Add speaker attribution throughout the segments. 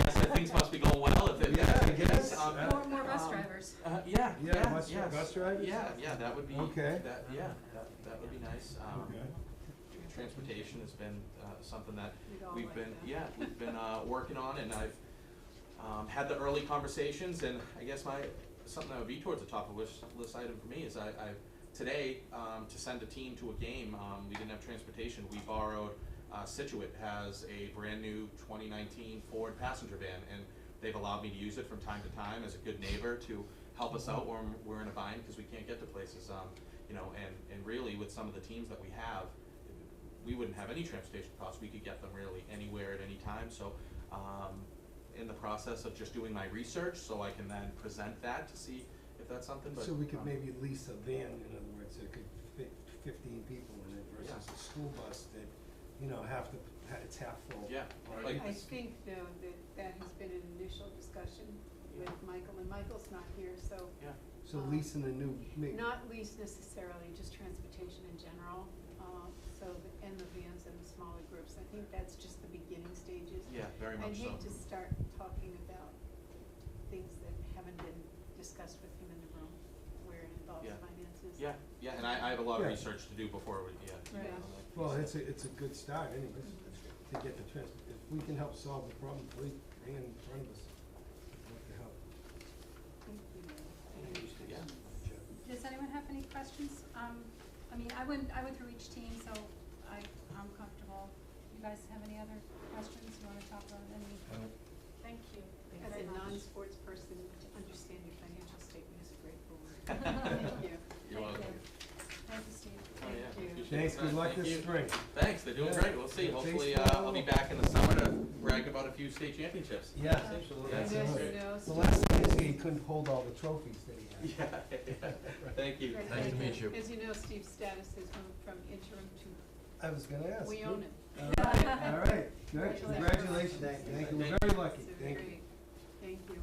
Speaker 1: uh,
Speaker 2: Um,
Speaker 3: bus drivers?
Speaker 1: Yeah, yeah, that would be,
Speaker 3: Okay.
Speaker 1: that, yeah, that, that would be nice. Um,
Speaker 3: Okay.
Speaker 1: Transportation has been uh, something that
Speaker 4: We'd all
Speaker 1: we've
Speaker 4: like
Speaker 1: been,
Speaker 4: that.
Speaker 1: yeah, we've been uh, working on, and I've um, had the early conversations, and I guess my, something that would be towards the top of wish list item for me is I, I, today, um, to send a team to a game, um, we didn't have transportation, we borrowed, uh, Situate has a brand-new twenty nineteen Ford passenger van, and they've allowed me to use it from time to time as a good neighbor to help us out when we're in a bind, because we can't get to places, um, you know, and, and really with some of the teams that we have, we wouldn't have any transportation costs, we could get them really anywhere at any time, so, um, in the process of just doing my research, so I can then present that to see if that's something, but.
Speaker 3: So we could
Speaker 1: um,
Speaker 3: maybe lease a van, in other words, that could fit fifteen people in it versus
Speaker 1: Yeah.
Speaker 3: a school bus that, you know, half the, it's half full.
Speaker 1: Yeah,
Speaker 3: Or
Speaker 1: like-
Speaker 4: I
Speaker 3: it's-
Speaker 4: think though that that has been an initial discussion with Michael, and Michael's not here, so
Speaker 1: Yeah,
Speaker 3: So
Speaker 4: um,
Speaker 3: leasing a new, maybe.
Speaker 4: not least necessarily, just transportation in general. uh, So, the- and the vans and the smaller groups, I think that's just the beginning stages.
Speaker 1: yeah, very
Speaker 4: I'd
Speaker 1: much so.
Speaker 4: hate to start talking about things that haven't been discussed with him in the room, where it involves
Speaker 1: Yeah.
Speaker 4: finances.
Speaker 1: Yeah, yeah, and I, I have a lot of
Speaker 3: Yeah.
Speaker 1: research to do before we, yeah. you
Speaker 4: Right.
Speaker 1: know, like you
Speaker 3: Well,
Speaker 1: said.
Speaker 3: it's a, it's a good start anyways, to get the trans, if we can help solve the problem, please, bring it in front of us. I'd like to help.
Speaker 4: Thank you.
Speaker 1: Yeah.
Speaker 2: Does anyone have any questions? Um, I mean, I went, I went through each team, so I, I'm comfortable. You guys have any other questions? You wanna talk about any?
Speaker 4: Thank you.
Speaker 2: Thank
Speaker 4: As a
Speaker 2: you very much.
Speaker 4: non-sports person, to understand your financial statement is a great reward. Thank you.
Speaker 1: You're
Speaker 2: Thank
Speaker 1: welcome.
Speaker 2: Thank you, Steve.
Speaker 1: Oh, yeah,
Speaker 4: Thank you.
Speaker 1: appreciate
Speaker 3: Thanks,
Speaker 1: the time.
Speaker 3: good luck
Speaker 1: Thank
Speaker 3: this
Speaker 1: you.
Speaker 3: spring.
Speaker 1: Thanks, they're doing
Speaker 3: Yeah.
Speaker 1: great, we'll see,
Speaker 3: It takes
Speaker 1: hopefully,
Speaker 3: a
Speaker 1: uh, I'll be
Speaker 3: while.
Speaker 1: back in the summer to brag about a few state championships.
Speaker 3: Yeah.
Speaker 1: Absolutely.
Speaker 4: And
Speaker 1: That's
Speaker 4: then,
Speaker 1: great.
Speaker 4: you know,
Speaker 3: The last thing is he couldn't hold all the trophies that he had.
Speaker 1: Yeah, thank you.
Speaker 4: Right.
Speaker 5: Nice to meet you.
Speaker 4: As you know, Steve's status has moved from interim to,
Speaker 3: I was gonna ask.
Speaker 4: we
Speaker 3: good.
Speaker 4: own it.
Speaker 3: All right, all right, good, congratulations,
Speaker 4: Thank
Speaker 1: you.
Speaker 3: thank you, we're
Speaker 1: Thank
Speaker 3: very lucky,
Speaker 4: So
Speaker 3: thank you.
Speaker 4: great. Thank you.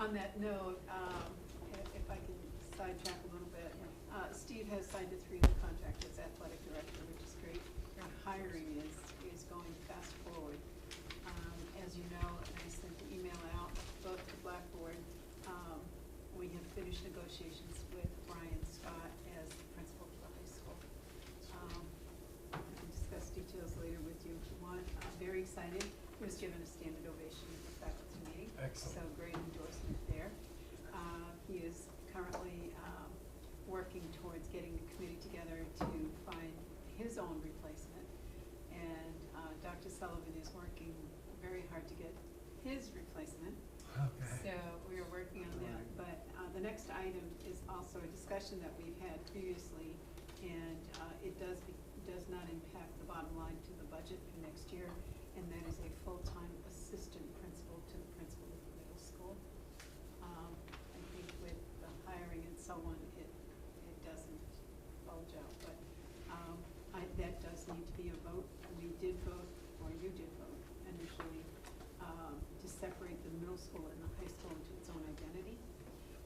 Speaker 4: On that note, um, i- if I can sidetrack a little bit, uh, Steve has signed a three-year contract as athletic director, which is great. And hiring is, is going fast forward. Um, As you know, and I sent the email out, both to Blackboard, um, we have finished negotiations with Brian Scott as the principal of the high school. Um, I can discuss details later with you if you want. I'm very excited. He was given a standing ovation at the faculty meeting.
Speaker 3: Excellent.
Speaker 4: So great endorsement there. Uh, He is currently um, working towards getting the committee together to find his own replacement. And uh, Dr. Sullivan is working very hard to get his replacement. So we are working on that, but uh, the next item is also a discussion that we've had previously, and uh, it does, be- does not impact the bottom line to the budget for next year, and that is a full-time assistant principal to the principal of the middle school. Um, I think with the hiring and so on, it, it doesn't bulge out, but um, I, that does need to be a vote. We did vote, or you did vote initially, um, to separate the middle school and the high school into its own identity.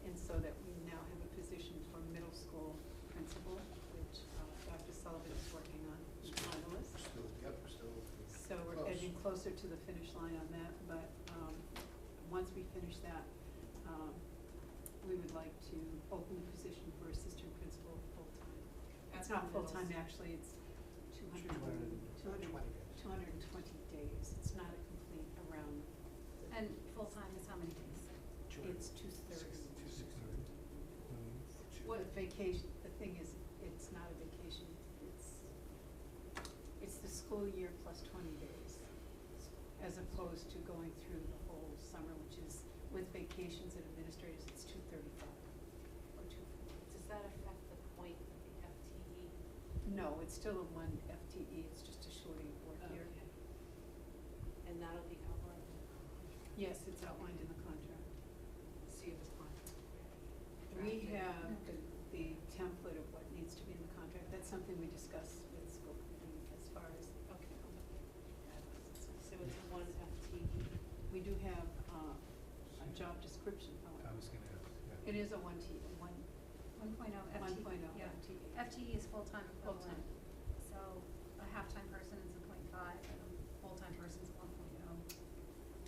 Speaker 4: And so that we now have a position for middle school principal, which uh, Dr. Sullivan is working on, he's finalist.
Speaker 6: Still, yep, still.
Speaker 4: So we're
Speaker 6: Close.
Speaker 4: edging closer to the finish line on that, but, um, once we finish that, um, we would like to open the position for assistant principal full-time. It's not full-time, actually, it's two hundred, two hundred, two hundred and twenty days, it's not a complete around,
Speaker 2: And full-time is how many days?
Speaker 4: it's two-thirds.
Speaker 6: Two-
Speaker 4: What vacation, the thing is, it's not a vacation, it's, it's the school year plus twenty days, as opposed to going through the whole summer, which is, with vacations and administrators, it's two thirty-five, or two forty.
Speaker 7: Does that affect the point of the E FTE?
Speaker 4: No, it's still a one FTE, it's just a shorter work year.
Speaker 7: And that'll be outlined in the contract?
Speaker 4: Yes, it's outlined in the contract.
Speaker 7: So you have a contract already?
Speaker 4: We
Speaker 7: drafted?
Speaker 4: have the, the template of what needs to be in the contract, that's something we discuss with school committee as far as, okay, I'll look at that.
Speaker 7: So it's a one
Speaker 4: E.
Speaker 7: FTE?
Speaker 4: We do have, uh, a job description, however.
Speaker 6: I was gonna ask, yeah.
Speaker 4: It is a one T, one,
Speaker 2: One point oh FTE.
Speaker 4: one point oh
Speaker 2: yeah.
Speaker 4: FTE.
Speaker 2: FTE is full-time equivalent.
Speaker 4: Full-time.
Speaker 2: So a half-time person is a point five and oh.